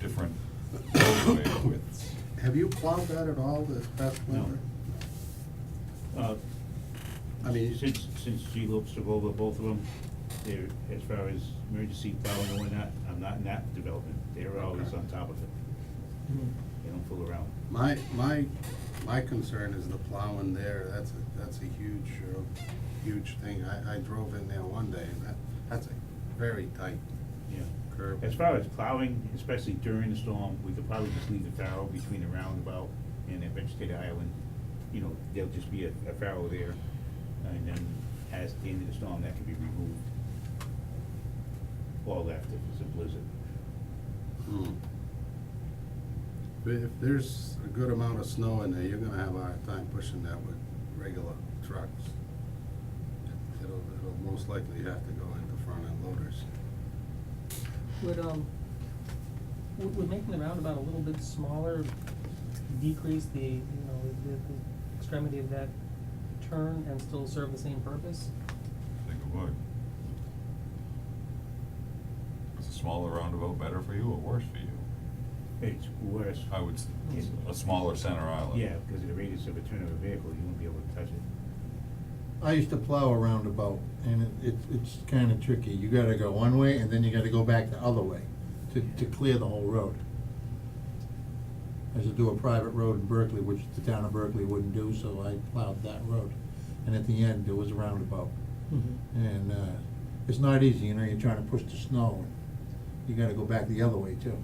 different roadway widths. Have you plowed that at all this past No. winter? Uh, I mean, you- Since, since G-Loops took over both of them, they're, as far as emergency plowing and whatnot, I'm not in that development. They're always on top of it. They don't fool around. My, my, my concern is the plowing there, that's, a that's a huge, uh, huge thing. I, I drove in there one day, and that, that's a very tight Yeah. curve. As far as plowing, especially during the storm, we could probably just leave the farrow between the roundabout and the vegetated island. You know, there'll just be a, a farrow there, and then as the end of the storm, that could be removed. Or left if it's a blizzard. Hmm. But if there's a good amount of snow in there, you're gonna have a hard time pushing that with regular trucks. It'll, it'll most likely have to go into front end loaders. Would, um, would, would making the roundabout a little bit smaller decrease the, you know, the, the extremity of that turn and still serve the same purpose? I think it would. Is a smaller roundabout better for you or worse for you? It's worse. I would, s- Yes. a smaller center island. Yeah, because of the radius of a turn of a vehicle, you won't be able to touch it. I used to plow a roundabout, and it, it's- it's kinda tricky, you gotta go one way, and then you gotta go back the other way, to, to clear the whole road. I used to do a private road in Berkeley, which the town of Berkeley wouldn't do, so I plowed that road, and at the end, there was a roundabout. And, uh, it's not easy, you know, you're trying to push the snow, and you gotta go back the other way too,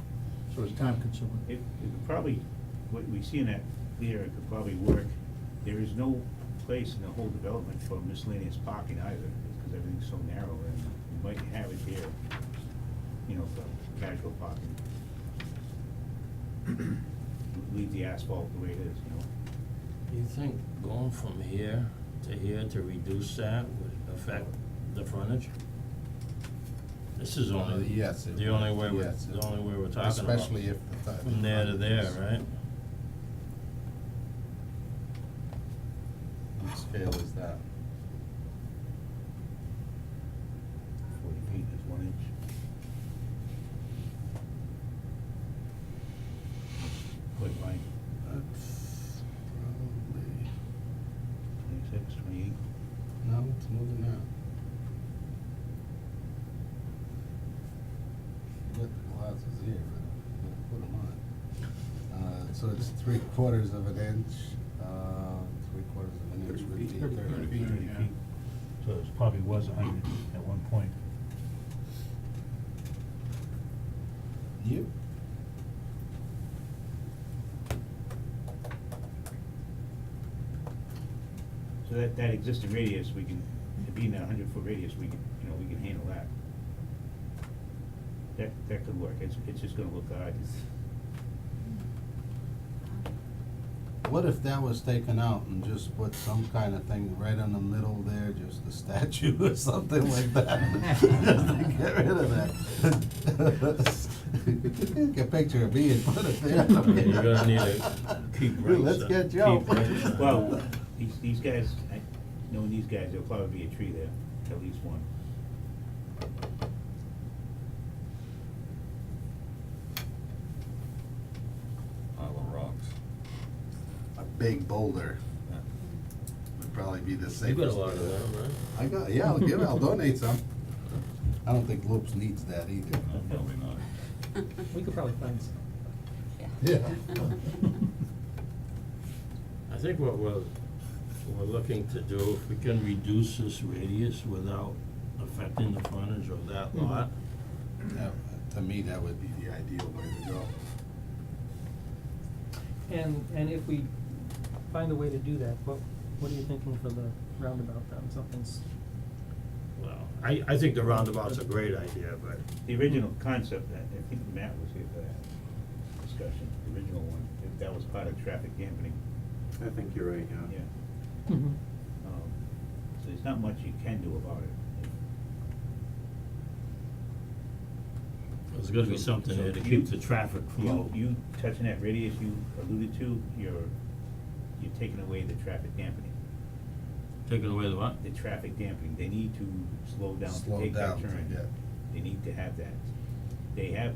so it's time consuming. It, it could probably, what we see in that there, it could probably work. There is no place in the whole development for miscellaneous parking either, because everything's so narrow, and you might have it here, you know, for casual parking. Leave the asphalt the way it is, you know? You think going from here to here to reduce that would affect the frontage? This is only, Uh, Yes, it the only way would, we're, yes, it the only way we're talking about. Especially if the. ti- From there to there, right? What scale is that? Forty feet is one inch. Quite wide, That's probably, twenty-six, twenty-eight. no, it's more than that. Get the glasses here, but I'm gonna put them on. Uh, so it's three quarters of an inch, uh, three quarters of an inch would be Thirty thirty feet, feet. thirty feet. So it probably was a hundred at one point. Yep. So that, that existing radius, we can, being that hundred foot radius, we can, you know, we can handle that. That, that could work, it's, it's just gonna look odd, it's, What if that was taken out and just put some kind of thing right in the middle there, just a statue or something like that? Just to get rid of that. Take a picture of me and put it there. You're gonna need to keep Dude, rates Let's up, get Joe. keep rates up. well, these, these guys, I, knowing these guys, there'll probably be a tree there, at least one. Isle of rocks. A big boulder Yeah. would probably be the safest. You got a lot of that, right? I got, yeah, I'll give it, I'll donate some. I don't think Lopes needs that either. No, probably not. We could probably find some. Yeah. I think what we're, we're looking to do, if we can reduce this radius without affecting the frontage of that Mm-hmm. Mhm. lot, That- To me, that would be the ideal way to go. And, and if we find a way to do that, what, what are you thinking for the roundabout then? Something's, well, I, I think the roundabout's a great idea, but The Hmm. original concept, I, I think Matt was here for that discussion, the original one, that- that was part of traffic dampening, I think you're right, yeah. yeah. Um, So there's not much you can do about it. there's gotta be something there to So you- keep the traffic You, flow. you touching that radius you alluded to, you're, you're taking away the traffic dampening, Taking away the what? the traffic dampening, they need to slow down Slow to take that down to turn. get- They need to have that, they have,